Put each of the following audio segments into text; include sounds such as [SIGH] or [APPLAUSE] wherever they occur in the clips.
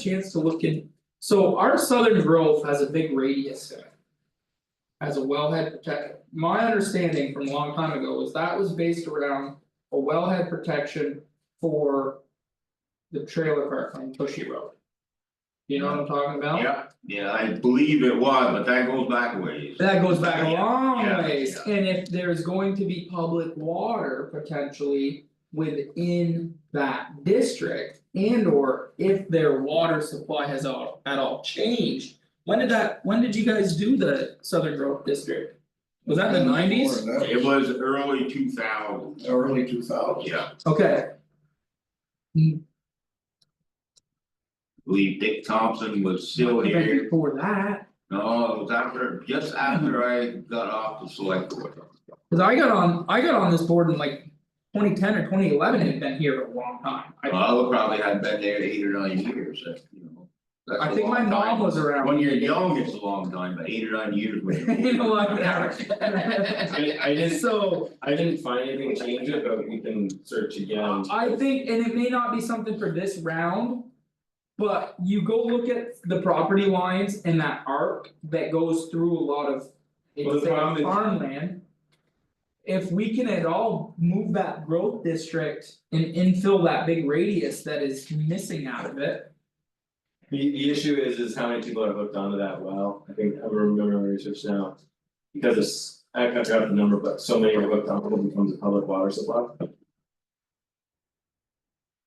chance to look in, so our southern grove has a big radius to it. As a wellhead protection, my understanding from a long time ago was that was based around a wellhead protection for. The trailer park on Bushy Road. You know what I'm talking about? Yeah, yeah, I believe it was, but that goes back a ways. That goes back a Yeah, long yeah, ways, and if there's going to be public water potentially within that district. And or if their water supply has all at all changed, when did that, when did you guys do the Southern Grove District? Was that in the nineties? Before that It was early two thousand, was Early two thousand. yeah, I Okay, believe Dick Thompson was still but here, before that, no, it was after, just after I got off the select board. cause I got on, I got on this board in like twenty ten or twenty eleven and been here for a long time. I [LAUGHS] Well, I probably had been there eight or nine years, that's, you know, that's I a think my long time. mom was around. When you're young, it's a long time, but eight or nine [LAUGHS] years. when you're- You know what? I I [LAUGHS] didn't, So. I didn't find anything to change it, but we can search again. I think, and it may not be something for this round. But you go look at the property lines and that arc that goes through a lot of. Well, the problem is- Farmland. If we can at all move that growth district and infill that big radius that is missing out of it. The the issue is is how many people are hooked onto that well, I think I'm remembering research now. Because it's, I I forgot the number, but so many are hooked on, it becomes a public water supply.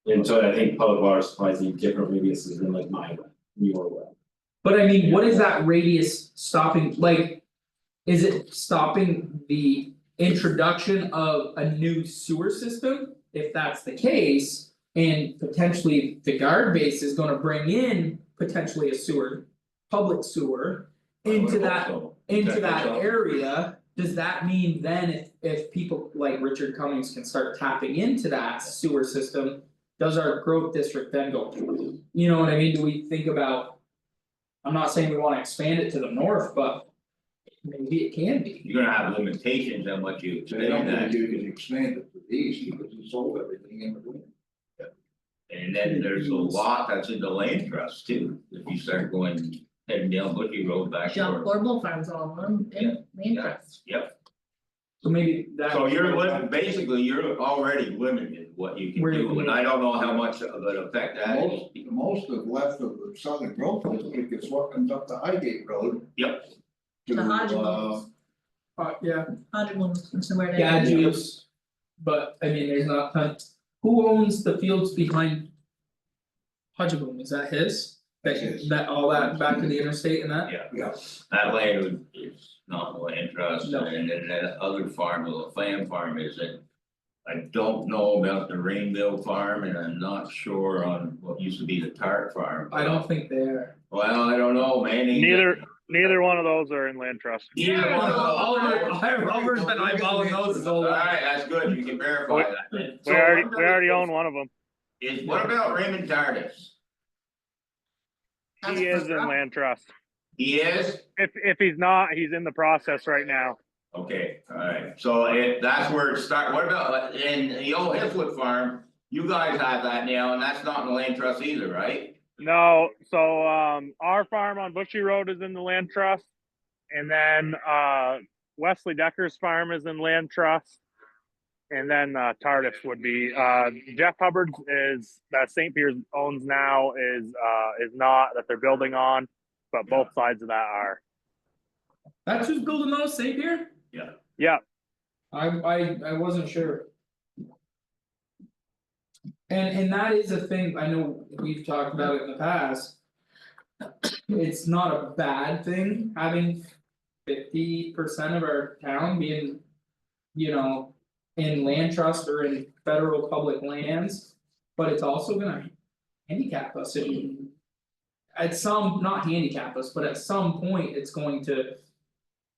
And so I think public water supplies need different radiuses than like my well, your well. But I mean, what is that radius stopping, like? Is it stopping the introduction of a new sewer system? If that's the case, and potentially the guard base is gonna bring in potentially a sewer, public sewer. Into that, into that area, does that mean then if if people like Richard Cummings can start tapping into that sewer system? Does our growth district then go, you know what I mean, do we think about? I'm not saying we wanna expand it to the north, but maybe it can be. [LAUGHS] You're gonna have limitations on what you So they don't expand think that, you can expand it to the east because you sold everything in between. and then there's a lot that's in the land trust too, if you start going heading down Bookie Road back John toward. Corbo farms all along, in land trust. Yep, So maybe that. so you're lim- basically, you're already limited what you can Where you do, can- and I don't know how much of an effect that is. Most, most of left of the southern growth district is working up the Highgate Road. Yep. To The uh, Hodgemons, Uh, yeah, Hodgemons and somewhere there. yeah, juice. But I mean, there's not, ton- who owns the fields behind? Hudgeboom, is that his? That That's his. that all that back to the interstate and that? yeah, That land would- is not the land trust, No. and then that other farm, the Lamb farm is it. I don't know about the Rainville farm, and I'm not sure on what used to be the Tart farm. I don't think they are. Well, I don't know, man. Ain't- Neither, neither one of those are in land trust. Neither one of those. Oliver, Oliver's been eyeballing those his whole life. Alright, that's good, you can verify that. We already, we already own one of them. Is, what about Raymond Tardis? That's He is in correct. land trust. He is? If, if he's not, he's in the process right now. Okay, alright, so if that's where it start, what about, uh, in the old Hiflet farm? You guys have that now, and that's not in the land trust either, right? No, so, um, our farm on Bushy Road is in the land trust. And then, uh, Wesley Decker's farm is in land trust. And then, uh, Tardif would be, uh, Jeff Hubbard's is, that St. Pierre's owns now is, uh, is not, that they're building on. But both sides of that are. That's who's building those, St. Pierre? Yeah. Yeah. I I I wasn't sure. And and that is a thing, I know we've talked about it in the past. It's not a bad thing having fifty percent of our town being. You know, in land trust or in federal public lands, but it's also gonna handicap us in. At some, not handicap us, but at some point, it's going to.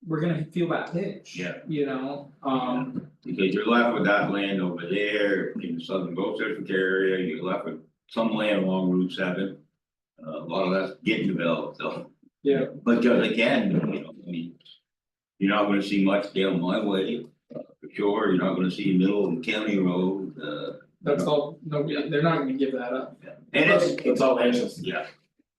We're gonna feel that pinch. Yeah. You know, um, Because you're left with that land over there in the southern Gulf District area, you're left with some land along Route seven. Uh, A lot of that's getting developed, so. Yeah. But just again, you know, I mean. You're not gonna see much down my way, uh, for sure, you're not gonna see middle of county road, uh. that's all, no, they're not gonna give that up. And it's, It's all land trust. yeah,